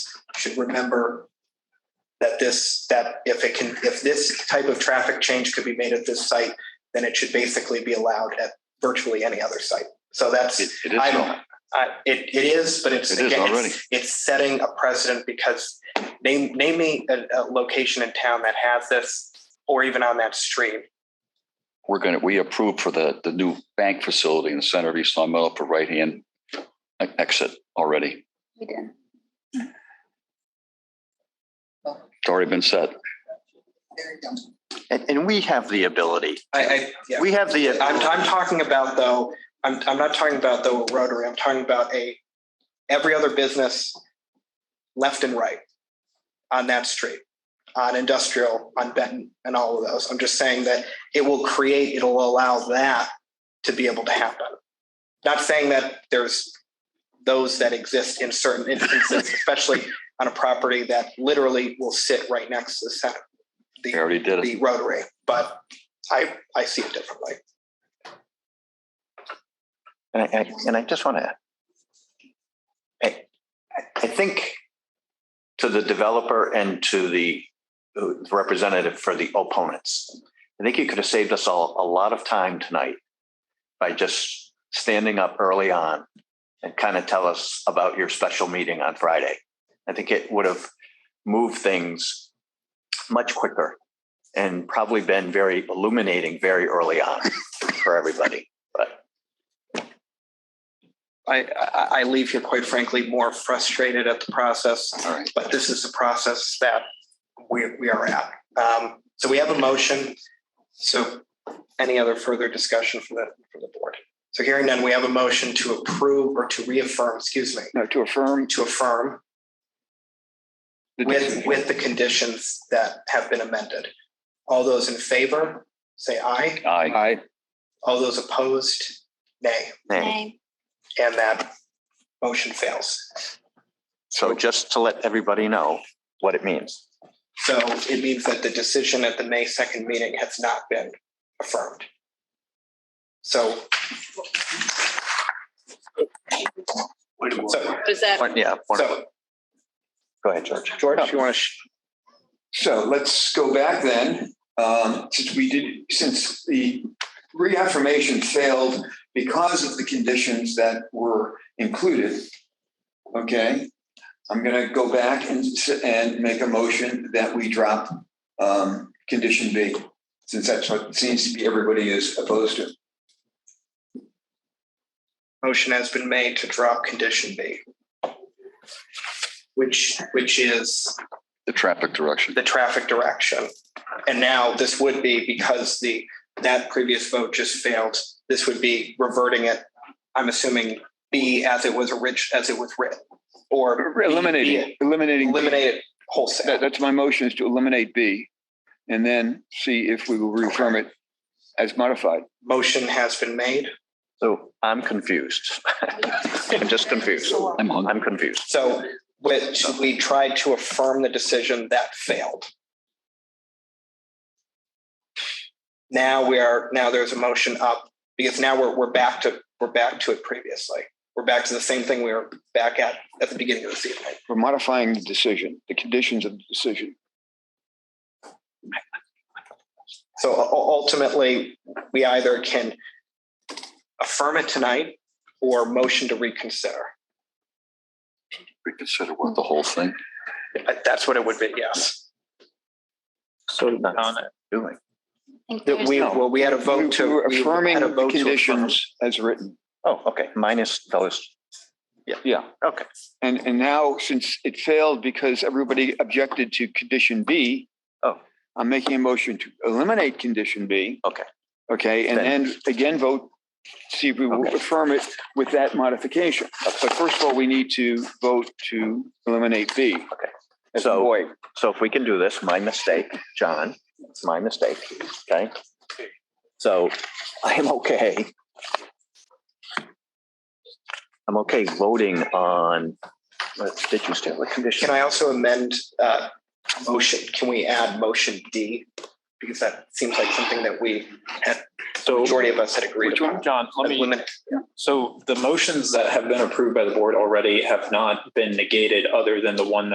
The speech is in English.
should remember that this, that if it can, if this type of traffic change could be made at this site, then it should basically be allowed at virtually any other site. So that's, It it I is, don't, I, it, it is, but it's. It is again, it's- already. It's setting a precedent because name, name me a, a location in town that has this or even on that stream. we're gonna, we approved for the, the new bank facility in the center of East Long Meadow for right-hand e- exit already. We did. It's already been said. And, and we have the ability, I, I, yeah. we have the. I'm, I'm talking about though, I'm, I'm not talking about though a Rotary, I'm talking about a, every other business left and right on that street, on industrial, on Benton and all of those. I'm just saying that it will create, it'll allow that to be able to happen. Not saying that there's those that exist in certain instances, especially on a property that literally will sit right next to the center, They already did it. the Rotary, but I, I see it differently. And I, I- and I just want to. I, I think to the developer and to the uh, representative for the opponents, I think you could have saved us all a lot of time tonight by just standing up early on and kind of tell us about your special meeting on Friday. I think it would have moved things much quicker and probably been very illuminating very early on for everybody. I, I, I leave here quite frankly more frustrated at the process, All right. but this is the process that we, we are at. Um, so we have a motion. So any other further discussion from the, from the board? So hearing none, we have a motion to approve or to reaffirm, excuse me, Now, to affirm. to affirm the with, decision. with the conditions that have been amended. All those in favor, say aye. Aye. Aye. All those opposed, nay. Nay. And that motion fails. So just to let everybody know what it means. So it means that the decision at the May second meeting has not been affirmed. So. So, Was that, One- Yeah, one- so, go ahead, George. George, you want to? So let's go back then, um, since we did, since the reaffirmation failed because of the conditions that were included. Okay, I'm gonna go back and, s- and make a motion that we drop, um, condition B, since that's what seems to be everybody is opposed to. Motion has been made to drop condition B. Which, which is The traffic direction. the traffic direction. And now this would be because the, that previous vote just failed, this would be reverting it, I'm assuming B as it was orig, as it was written. Or Eliminating, eliminating, eliminate it wholesale. that, that's my motion is to eliminate B and then see if we will reaffirm it as modified. Motion has been made. So I'm confused. I'm just confused. I'm hungry. I'm confused. So which we tried to affirm the decision that failed. Now we are, now there's a motion up because now we're, we're back to, we're back to it previously. We're back to the same thing we were back at, at the beginning of this evening. We're modifying the decision, the conditions of the decision. So u- ultimately, we either can affirm it tonight or motion to reconsider. Reconsider what the whole thing. Uh, That's what it would be, yes. So. Doing. I That think there's- we, well, we had a vote to. We're we had a Affirming the vote to affirm. conditions as written. Oh, okay, minus those. Yeah. Okay. And, and now since it failed because everybody objected to condition B. Oh. I'm making a motion to eliminate condition B. Okay. Okay, and then again, vote, see if we will Okay. affirm it with that modification. But first of all, we need to vote to eliminate B. Okay. As So- void. So if we can do this, my mistake, John, it's my mistake, okay? So I am okay. I'm okay voting on, what did you say, what condition? Can I also amend uh, motion? Can we add motion D? Because that seems like something that we, So, majority of us had agreed upon. John, let me, Eliminate- so the motions that have been approved by the board already have not been negated other than the one that